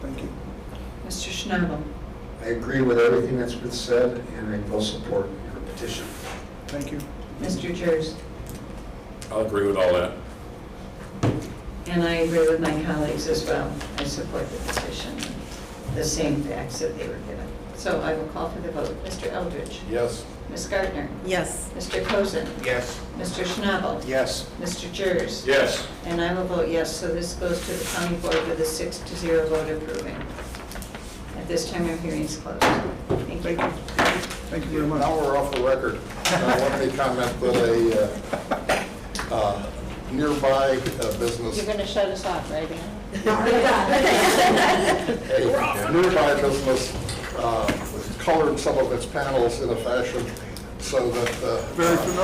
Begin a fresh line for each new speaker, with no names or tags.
Schnabel.
I agree with everything that's been said, and I will support your petition.
Thank you.
Mr. Jers.
I'll agree with all that.
And I agree with my colleagues as well. I support the petition, the same facts that they were given. So I will call for the vote. Mr. Eldridge.
Yes.
Ms. Gardner.
Yes.
Mr. Cozen.
Yes.
Mr. Schnabel.
Yes.
Mr. Jers.
Yes.
And I will vote yes, so this goes to the county board with a six to zero vote approving. At this time, our hearing is closed. Thank you.
Thank you very much.
Now we're off the record. I wanted to comment that a uh, uh, nearby uh, business,
You're going to shut us off, right, Ann?
a nearby business uh, colored some of its panels in a fashion so that. uh,
Very familiar.